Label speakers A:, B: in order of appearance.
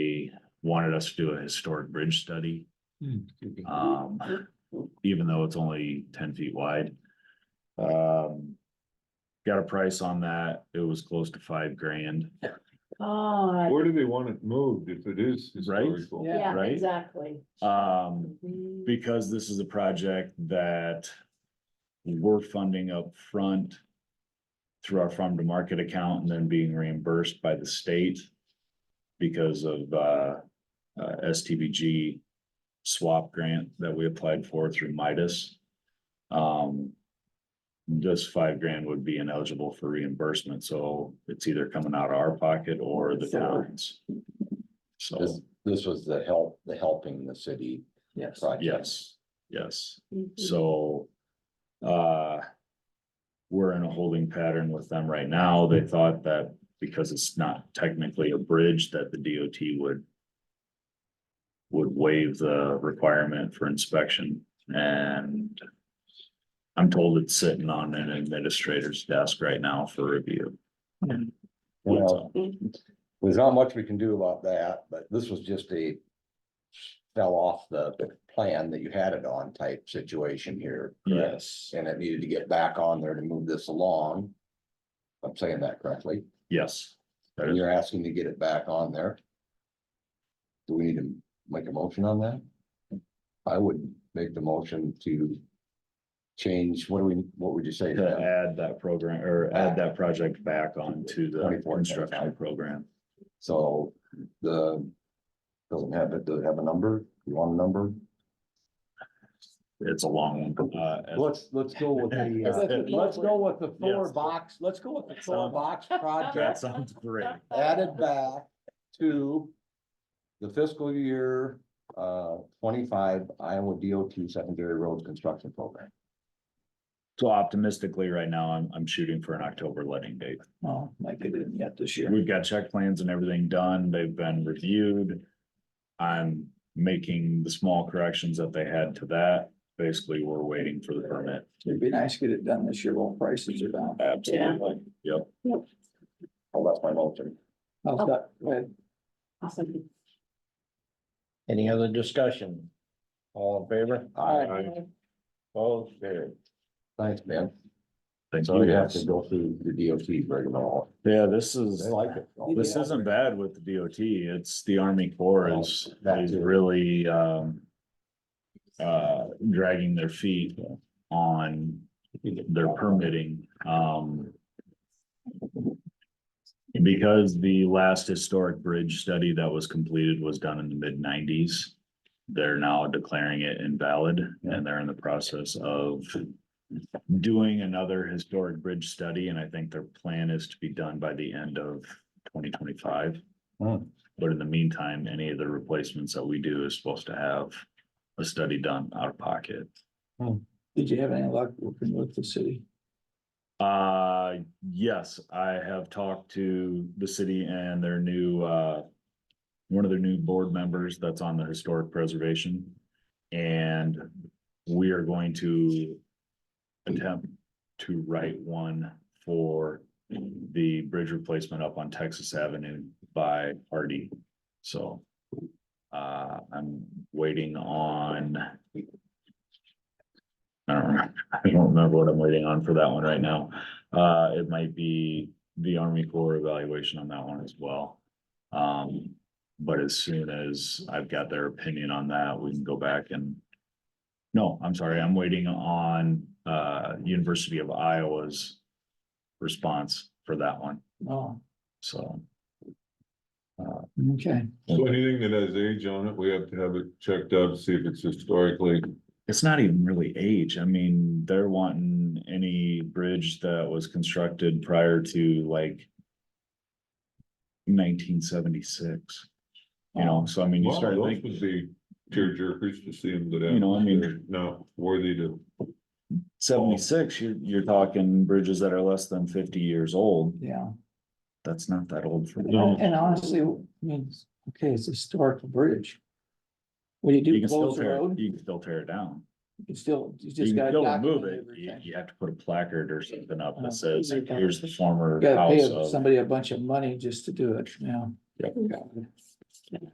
A: wanted us to do a historic bridge study. Um, even though it's only ten feet wide. Um. Got a price on that. It was close to five grand,
B: God,
C: Where do they want it moved if it is
A: Right?
C: historical?
B: yeah,
A: right?
B: exactly.
A: um,
B: Mhm.
A: because this is a project that. We're funding up front Through our farm to market account and then being reimbursed by the state. Because of, uh, uh, STBG swap grant that we applied for through Midas. Um. This five grand would be ineligible for reimbursement, so it's either coming out of our pocket or the town's.
D: This,
A: So,
D: this was the help, the helping the city
E: Yes.
D: project.
A: yes, yes.
B: Mhm.
A: So, uh, we're in a holding pattern with them right now. They thought that because it's not technically a bridge that the DOT would would waive the requirement for inspection and I'm told it's sitting on an administrator's desk right now for review.
D: Well, there's not much we can do about that, but this was just a fell off the plan that you had it on type situation here. correct?
A: Yes,
D: And it needed to get back on there to move this along. I'm saying that correctly.
A: yes. That
D: And
A: is-
D: you're asking to get it back on there. Do we need to make a motion on that? I would make the motion to change, what do we, what would you say?
A: To
D: Dan?
A: add that program or add that project back onto the
D: 24,
A: instructional
D: 25.
A: program.
D: So the, doesn't have, it, does it have a number? You want a number?
A: It's a long one. uh, as-
D: Let's, let's go with the,
B: Is
D: uh,
B: it-
D: let's go with the
A: Yes.
D: four box, let's go with the four
A: Sounds-
D: box
A: That
D: project
A: sounds great.
D: added back to the fiscal year, uh, twenty-five Iowa DOT secondary roads construction program.
A: So optimistically, right now, I'm, I'm shooting for an October letting date.
E: Oh, like they didn't yet this year.
A: We've got check plans and everything done. They've been reviewed. I'm making the small corrections that they had to that. Basically, we're waiting for the permit.
E: It'd be nice to get it done this year while prices are down.
A: Absolutely. Yep.
D: Oh, that's my motion.
E: How's that? Go ahead.
B: Awesome.
F: Any other discussion? All in favor?
B: Alright.
F: Both carried.
D: Thanks, Ben.
A: Thank
D: So
A: you.
D: you have to
A: guys.
D: go through the DOT regular.
A: Yeah, this
D: They
A: is,
D: like it.
A: this isn't bad with the DOT. It's the Army Corps is,
D: That
A: is
D: too.
A: really, um, uh, dragging their feet on their permitting, um. Because the last historic bridge study that was completed was done in the mid nineties. They're now declaring it invalid and they're in the process of. Doing another historic bridge study, and I think their plan is to be done by the end of twenty twenty-five.
D: Hmm.
A: But in the meantime, any of the replacements that we do is supposed to have a study done out of pocket.
E: Did you have any luck working with the city?
A: Uh, yes, I have talked to the city and their new, uh, one of their new board members that's on the historic preservation. And we are going to attempt to write one for the bridge replacement up on Texas Avenue by Hardy. So, uh, I'm waiting on I don't remember, I don't remember what I'm waiting on for that one right now. Uh, it might be the Army Corps evaluation on that one as well. Um, but as soon as I've got their opinion on that, we can go back and. No, I'm sorry, I'm waiting on, uh, University of Iowa's response for that one,
E: Oh,
A: so. uh,
E: okay.
C: So anything that has age on it, we have to have it checked up, see if it's historically,
A: It's not even really age. I mean, they're wanting any bridge that was constructed prior to like nineteen seventy-six. You know, so I mean, you
C: wow,
A: start
C: those would
A: thinking,
C: be tearjerkers to see them go down.
A: You know, I mean-
C: They're Not worthy to,
A: seventy-six, you're, you're talking bridges that are less than fifty years old.
E: Yeah.
A: That's not that old for
E: And
A: me.
E: hon- and honestly, I mean, it's- okay, it's a historical bridge. What do you
A: You
E: do?
A: can still
E: Close the
A: tear,
E: road?
A: you can still tear it down.
E: You can still, you
A: You
E: just
A: can
E: gotta
A: still remove
E: document
A: it. You,
E: everything.
A: you have to put a placard or something up
E: Oh,
A: that says,
E: okay.
A: here's the former
E: You Gotta
A: house
E: pay
A: of.
E: somebody a bunch of money just to do it, yeah.
A: Yep.
E: God.